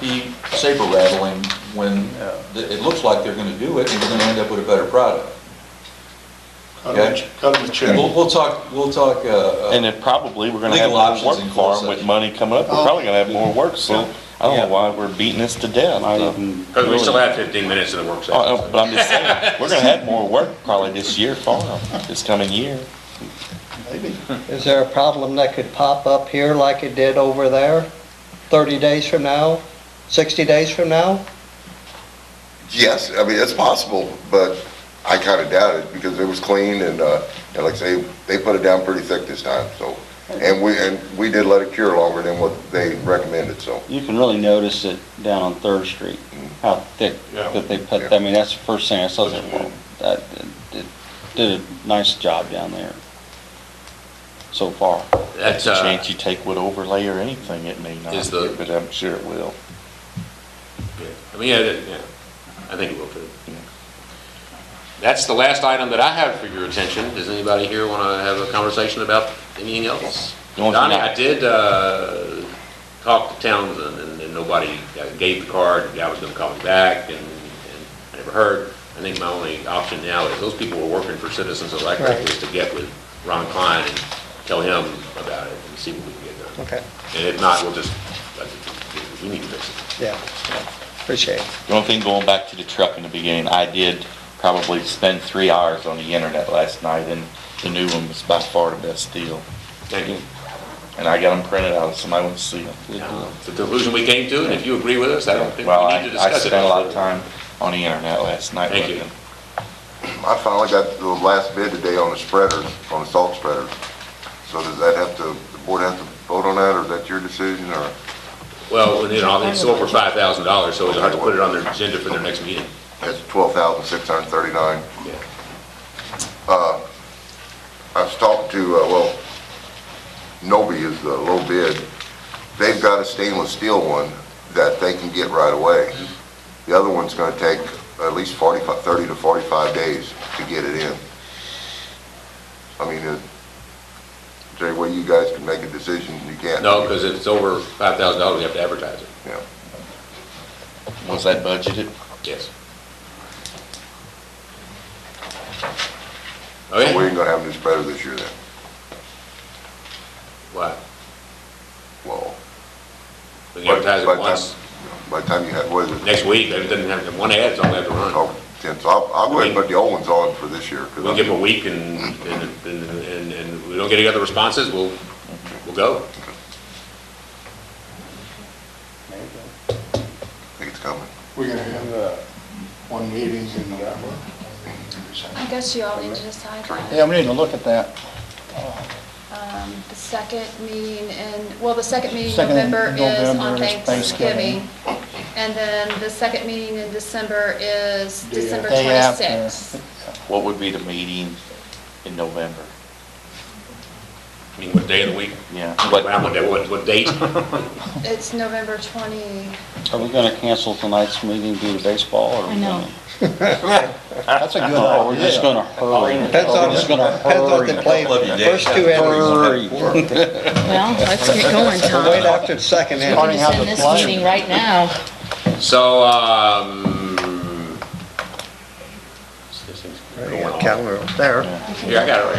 be saber rattling when th- it looks like they're gonna do it and you're gonna end up with a better product. Cut them a- cut them a check. We'll, we'll talk, we'll talk, uh, And uh, then probably, we're gonna have Legal more options work in for closed 'em with session. money coming up, we're Oh. probably gonna have more work, so I don't Yeah. know why we're beating this to death. I Uh, didn't Because we still really- have 15 minutes of the work session. uh, But I'm just saying, we're gonna have more work probably this year for 'em, this coming year. Maybe. Is there a problem that could pop up here like it did over there, 30 days from now, 60 days from now? Yes, I mean, it's possible, but I kind of doubt it because it was clean and, uh, and like I say, they put it down pretty thick this time, so. And we, and we did let it cure longer than what they recommended, so. You can really notice it down on Third Street, how thick Yeah. that they put, I mean, that's the first thing I saw, I was like, well, that, it- it did a nice job down there so far. That's That's, a uh, chance you take with overlay or anything, it may not, Is the- but I'm sure it will. yeah. I mean, yeah, that- yeah, I think it will too. That's the last item that I have for your attention. Does anybody here want to have a conversation about anything else? The only thing Donnie, I- I did uh, talk to Townsend and- and nobody uh, gave the card. The guy was going to call me back and and I never heard. I think my only option now is those people who are working for Citizens Electric Right. is to get with Ron Klein and tell him about it and see what we can get done. Okay, And if not, we'll just, we need to fix it. yeah, appreciate it. The only thing going back to the truck in the beginning, I did probably spend three hours on the internet last night and the new one was by far the best deal. Thank you. And I got them printed out, somebody wants to see them. It's the conclusion we came to, and if you agree with us, I don't think Well, we I, need to I discuss it. spent a lot of time on the internet last night Thank you. looking. I finally got the last bid today on the spreaders, on the salt spreaders. So does that have to, the board have to vote on that, or is that your decision, or? Well, you know, it's over five thousand dollars, so we'll have to put it on their agenda for their next meeting. That's twelve thousand six hundred thirty-nine. Yeah. Uh, I was talking to, uh, well, Noby is the low bid. They've got a stainless steel one that they can get right away. The other one's gonna take at least forty-five, thirty to forty-five days to get it in. I mean, uh, is there any way you guys can make a decision? You can't. No, because if it's over five thousand dollars, we have to advertise it, Yeah. Was that budgeted? yes. So we Okay, ain't gonna have any spreader this year then. what, Well, we can advertise By it the once, by the time you have, what is it? next week, it doesn't have, one ad, it's only have to run. Oh, ten, so I'll, I'll go ahead and put the old ones on for this year. 'cause We'll I- give them a week, and, and, and, and- and we don't get any other responses, we'll, we'll go. I think it's coming. We're gonna have, uh, one meeting in uh, November. I guess you all need to decide that. Yeah, we need to look at that. Um, The second meeting in, well, the second meeting in Second in November is on November is Thanksgiving. Thanksgiving. And then the second meeting in December is Day December Day after. 26th. What would be the meeting in November? I mean, what day of the week, Yeah, what, but what, what date? It's November 20, Are we gonna cancel tonight's meeting due to baseball or? I know. That's a good Oh, we're just idea. gonna hurry. Depends Oh, on, We're just gonna depends on the hurry. play, Couple of you first days. two entries, Hurry. Well, let's get going, Tom. wait after the second We entry. can Starting just how the end this play- meeting right now. So, um. this thing's There you going go, off. Calendar up there. Here, I got it right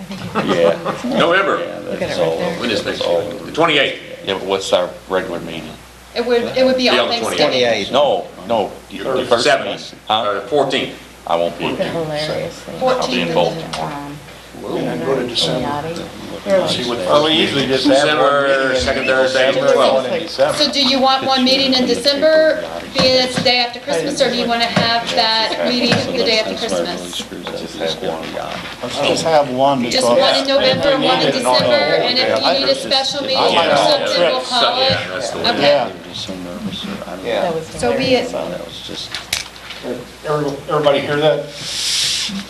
I think you- yeah, here. November, Look at That's it right all. there. when is next year? The twenty-eighth. yeah, but what's our regular meeting? it would, it would be Be on on the 28th. Thanksgiving. No, no, the the first meeting. Seventeenth, Huh? or fourteenth. I won't be Look at here. hilarious. thing. I'll be in Baltimore. Um, And go to December. Yachty. They're like- See what- Well, we usually just have one December, meeting in second Thursday, December, twelfth. one in December. So do you want one meeting in December, being it's the day after Christmas, or do you want to have that meeting the day after Christmas? Just have one guy. Let's just have one Just because. one in November, one in December, and if you need a special meeting or something, we'll call Yeah, it. that's the Okay. one. Yeah, they're just so nervous. I don't know. That was So uh, be hilarious. it. So That was just. Every- Everybody hear that?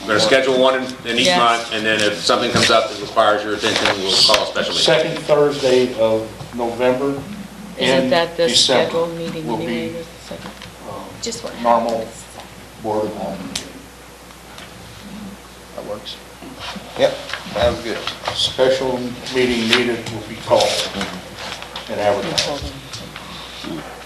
We're gonna schedule one in- in each Yes. month, and then if something comes up that requires your attention, we'll call a special meeting. Second Thursday of November Isn't and that the December scheduled meeting will be- anyway? is the second? Just one. normal board uh, of aldermen. That works. yep, sounds good. Special meeting needed will be called and advertised. Hold on.